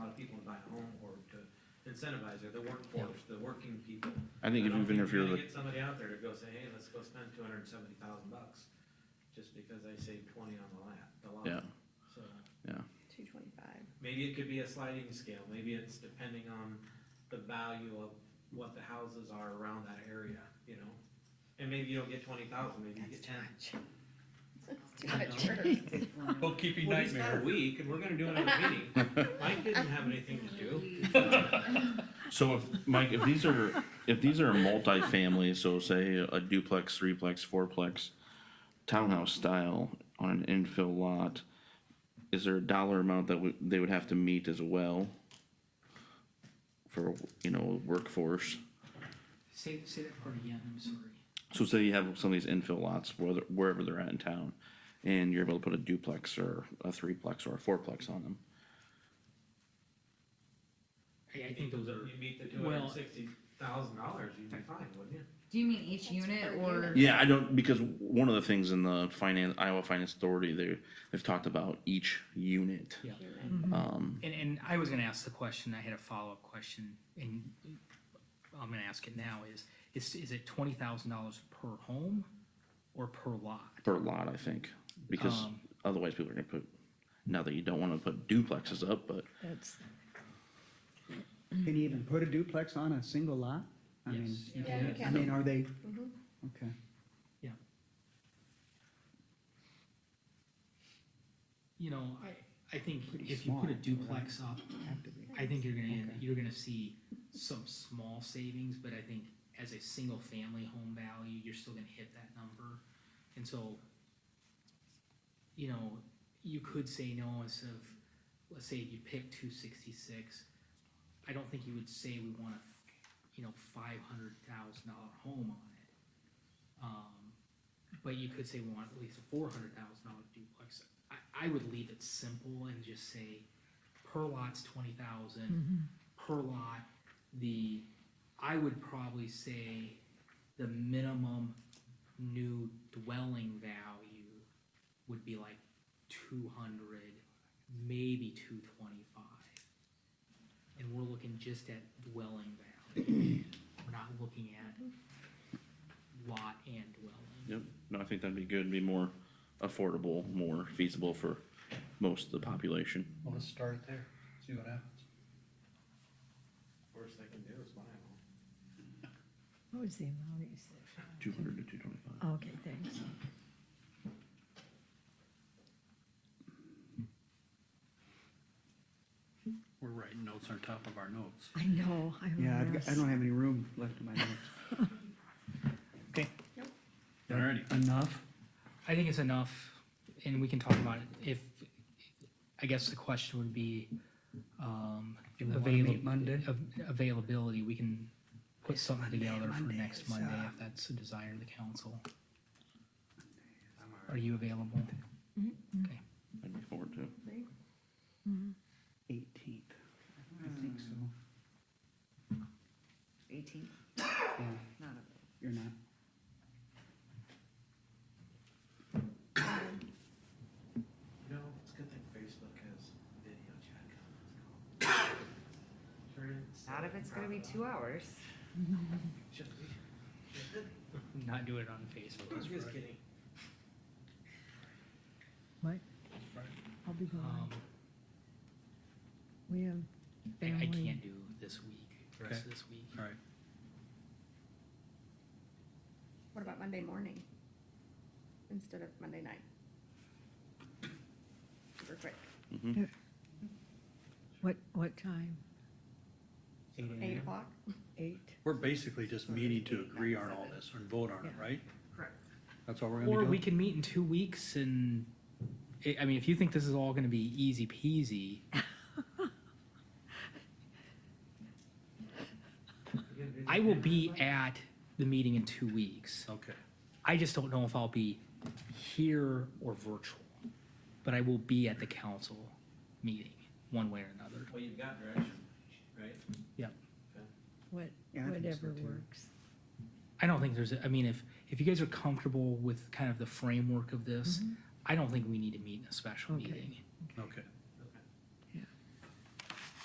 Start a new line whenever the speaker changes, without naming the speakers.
incentivize, or the workforce, the working people.
I think if
don't
even if
you're
you're,
gonna
look-
Get somebody out there to go say, hey, let's go spend two hundred and seventy thousand bucks, just because I saved twenty on the lap, the lot.
yeah,
So,
Two twenty-five.
maybe it could be a sliding scale, maybe it's depending on the value of what the houses are around that area, you know? And maybe you don't get twenty thousand, maybe you get ten.
That's too much.
Bookkeeping
Well, he's got a
nightmare.
week, and we're gonna do another meeting. Mike didn't have anything to do.
so if, Mike, if these are, if these are multifamily, so say a duplex, threeplex, fourplex, townhouse style on an infill lot, is there a dollar amount that would, they would have to meet as well? For, you know, workforce?
Say, say that part again, I'm sorry.
So say you have some of these infill lots, whether, wherever they're at in town, and you're able to put a duplex or a threeplex or a fourplex on them.
I, I think those are,
You meet the two hundred
Well-
and sixty thousand dollars, you'd be fine, wouldn't you?
Do you mean each
That's
unit
per
or?
Yeah, I don't, because one of the things in the finance, Iowa Finance Authority, they, they've talked about each unit.
yeah.
Um,
And, and I was gonna ask the question, I had a follow-up question, and I'm gonna ask it now, is, is, is it twenty thousand dollars per home or per lot?
per lot, I think, because
Um.
otherwise people are gonna put, not that you don't wanna put duplexes up, but
Can you even put a duplex on a single lot? I mean,
Yes.
Yeah, you
I
can.
mean, are they?
Mhm.
Okay.
You know, I, I think
Pretty
if you put a
small, right?
duplex up,
have to be.
I think you're gonna,
Okay.
you're gonna see some small savings, but I think as a single-family home value, you're still gonna hit that number. And so, you know, you could say no instead of, let's say you pick two sixty-six. I don't think you would say we want a, you know, five hundred thousand dollar home on it. Um, but you could say we want at least a four hundred thousand dollar duplex. I, I would leave it simple and just say per lot's twenty thousand, per lot, the, I would probably say the minimum new dwelling value would be like two hundred, maybe two twenty-five. And we're looking just at dwelling value, we're not looking at lot and dwelling.
Yep, no, I think that'd be good, be more affordable, more feasible for most of the population.
Wanna start there, see what happens.
Worst they can do is buy them.
What was the amount you said? Oh,
Two hundred to two twenty-five.
Okay, thanks.
We're writing notes on top of our notes.
I know, I'm
Yeah, I've,
embarrassed.
got- I don't have any room left in my notes. Okay.
Nope.
Alrighty.
Enough?
I think it's enough, and we can talk about it if, I guess the question would be, um,
Do we wanna meet
availab-
Monday?
av- Availability, we can put something together for
Monday
next
is,
Monday
uh,
if that's the desire of the council. Are you available? Okay,
I'd be forward to.
Eighteenth. I think so.
Eighteen,
Yeah,
not a.
you're not.
You know, it's a good thing Facebook has video chat. Turn it-
Not if it's gonna be two hours.
Should be.
not do it on Facebook.
I'm just kidding.
I'll be gone.
Um,
We have
I, I
family.
can't do this week, the rest of this week.
Alright,
What about Monday morning? Instead of Monday night? Super quick,
What, what time?
eight o'clock?
Eight?
we're basically just meeting to agree on all this and vote on it, right?
Correct.
That's all we're
Or
gonna
we
do?
can meet in two weeks and, I, I mean, if you think this is all gonna be easy peasy, I will be at the meeting in two weeks.
Okay,
I just don't know if I'll be here or virtual, but I will be at the council meeting, one way or another.
Well, you've got direction, right?
What,
Yeah, I think so
whatever
too.
works.
I don't think there's, a- I mean, if, if you guys are comfortable with kind of the framework of this, I don't think we need to meet in a special
Okay.
meeting.
okay.